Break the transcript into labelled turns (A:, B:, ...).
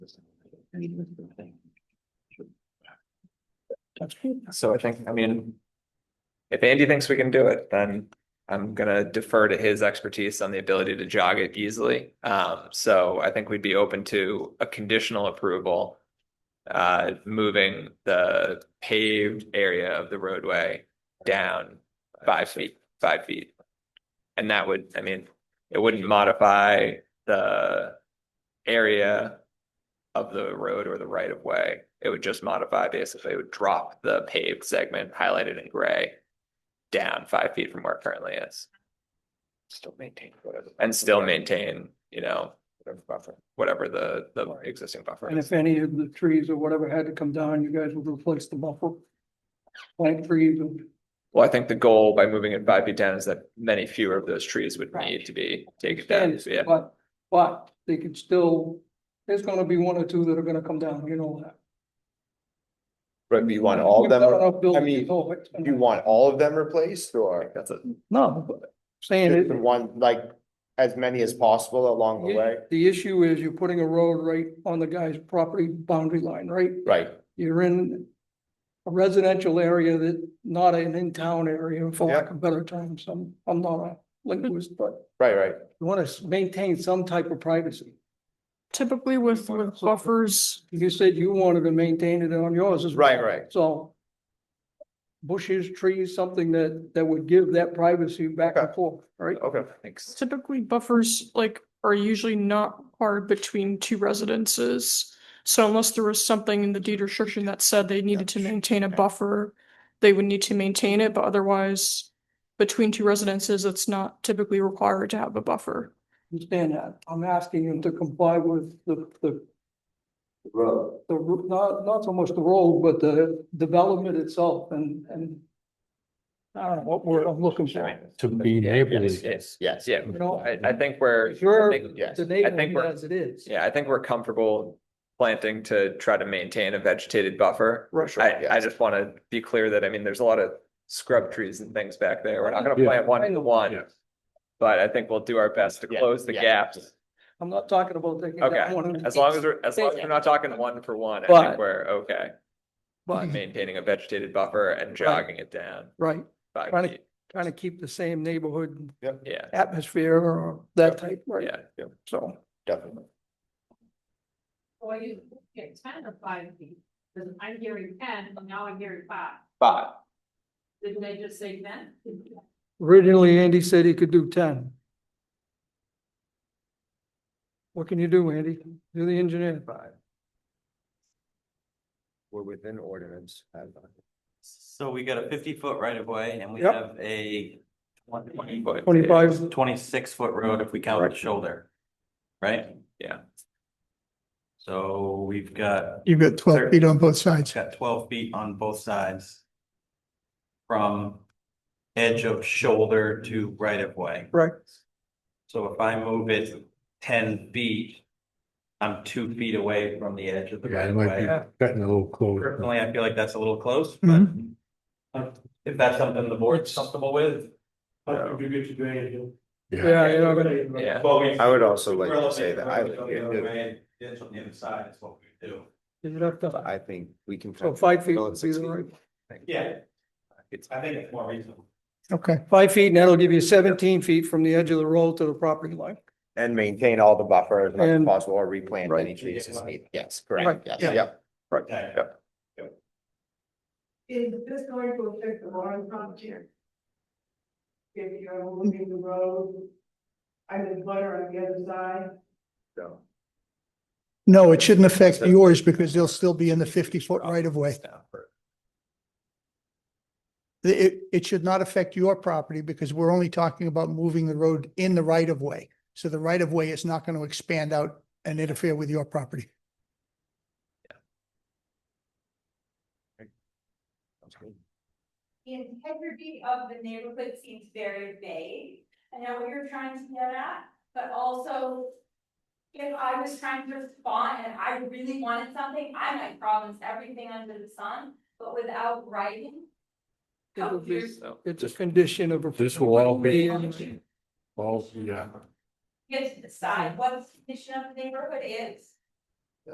A: So I think, I mean. If Andy thinks we can do it, then I'm gonna defer to his expertise on the ability to jog it easily. Um, so I think we'd be open to a conditional approval. Uh, moving the paved area of the roadway down five feet, five feet. And that would, I mean, it wouldn't modify the area of the road or the right of way. It would just modify, basically, it would drop the paved segment highlighted in gray down five feet from where it currently is.
B: Still maintain whatever.
A: And still maintain, you know,
B: whatever buffer.
A: whatever the, the
B: Right.
A: existing buffer
C: And
A: is.
C: if any of the trees or whatever had to come down, you guys would replace the buffer. Plant trees and
A: Well, I think the goal by moving it five feet down is that many fewer of those trees would
D: Right.
A: need to be taken down,
C: stands,
A: yeah.
C: but, but they could still, there's gonna be one or two that are gonna come down, you know that.
B: But you want all of
C: We've got
B: them,
C: enough buildings
B: mean,
C: over it.
B: you want all of them replaced
A: I
B: or
A: think That's it.
C: No, but saying
B: just
C: it,
B: the one, like, as many as possible along the
C: Yeah.
B: way?
C: the issue is you're putting a road right on the guy's property boundary line, right?
B: Right,
C: You're in a residential area that, not an in-town area, for lack of better terms, I'm, I'm not a linguist, but
B: right, right.
C: you wanna s- maintain some type of privacy.
D: Typically with, with buffers,
C: You said you wanted to maintain it on yours as well.
B: Right, right.
C: So bushes, trees, something that, that would give that privacy back and forth, right?
B: Okay.
A: Thanks.
D: typically buffers like are usually not required between two residences. So unless there was something in the deed restriction that said they needed to maintain a buffer, they would need to maintain it, but otherwise between two residences, it's not typically required to have a buffer.
C: Understand that. I'm asking them to comply with the, the,
B: Road.
C: the, ru- not, not so much the road, but the development itself and, and I don't know what word I'm looking for.
E: To be neighborly.
A: Yes, yes,
B: Yes,
A: yeah.
C: You know,
A: I, I think we're.
C: Sure.
A: I think-
B: yes.
C: the
A: I think
C: neighborhood
A: we're-
C: as it is.
A: Yeah, I think we're comfortable planting to try to maintain a vegetated buffer.
B: for sure,
A: I, I
B: yes.
A: just want to be clear that, I mean, there's a lot of scrub trees and things back there. We're not going to
E: Yeah.
A: plant one
C: I
A: to
C: know.
A: one. But I think we'll do our best to
B: Yeah,
A: close the
B: yeah.
A: gaps.
C: I'm not talking about taking
A: Okay,
C: that one. and-
A: As long as we're, as long as we're not talking one for one, I
C: But-
A: think we're okay.
C: But,
A: Maintaining a vegetated buffer and jogging it down
C: right,
A: five
C: Trying to-
A: feet.
C: trying to keep the same neighborhood
A: Yeah,
C: atmosphere or that type, right?
A: yeah.
C: So.
B: Definitely.
F: Well, you get ten or five feet, because I'm hearing ten, and now I'm hearing five.
A: But
F: Didn't they just say ten?
C: Originally, Andy said he could do ten. What can you do, Andy? Do the engineer.
B: Five. We're within ordinance.
G: So we got a fifty foot right of way and we
C: Yep.
G: have a twenty foot.
C: Twenty-five,
G: Twenty six foot road if we count the shoulder. Right?
A: Yeah.
G: So we've got,
H: You've got
G: Sure.
H: twelve feet on both
G: it's
H: sides.
G: got twelve feet on both sides. From edge of shoulder to right of way.
C: Right.
G: So if I move it ten feet. I'm two feet away from the edge of the
E: Yeah,
G: right
E: it
G: of
E: might be
G: way.
E: cutting a little close.
G: Personally, I feel like that's a little close, but. um, If that's something the board's comfortable with.
C: yeah, you know, but-
A: Yeah.
G: Well, we-
B: I would also like
G: We're
B: to
G: looking
B: say
G: for
B: that I
G: roads on
B: live
G: the other
B: here,
G: way, ditch on the other side is what we do.
C: you'd have
B: but
C: to-
B: I think we can.
C: so five feet
B: Go
C: would
B: at
C: be
B: six
C: the
B: feet.
C: right,
G: Yeah. I think it's more reasonable.
H: Okay,
C: five feet, and that'll give you seventeen feet from the edge of the road to the property line.
B: And maintain all the buffer as much as
C: And-
B: possible or replant any
G: Right.
B: trees as needed. Yes,
C: Right,
B: correct. Yes,
H: yeah.
B: yep.
G: Okay.
F: Is this going to affect the Lauren frontier? If you're moving the road, I'm in butter on the other side.
B: So.
H: no, it shouldn't affect yours because they'll still be in the fifty foot right of way. The- It, it should not affect your property because we're only talking about moving the road in the right of way. So the right of way is not going to expand out and interfere with your property.
I: The integrity of the neighborhood seems very vague. I know what you're trying to get at, but also. If I was trying to respond and I really wanted something, I might promise everything under the sun, but without writing.
C: It'll be,
A: So,
C: it's a condition of. a-
E: This will all be-
C: Yeah.
E: Well, yeah.
I: You have to decide what the condition of the neighborhood is.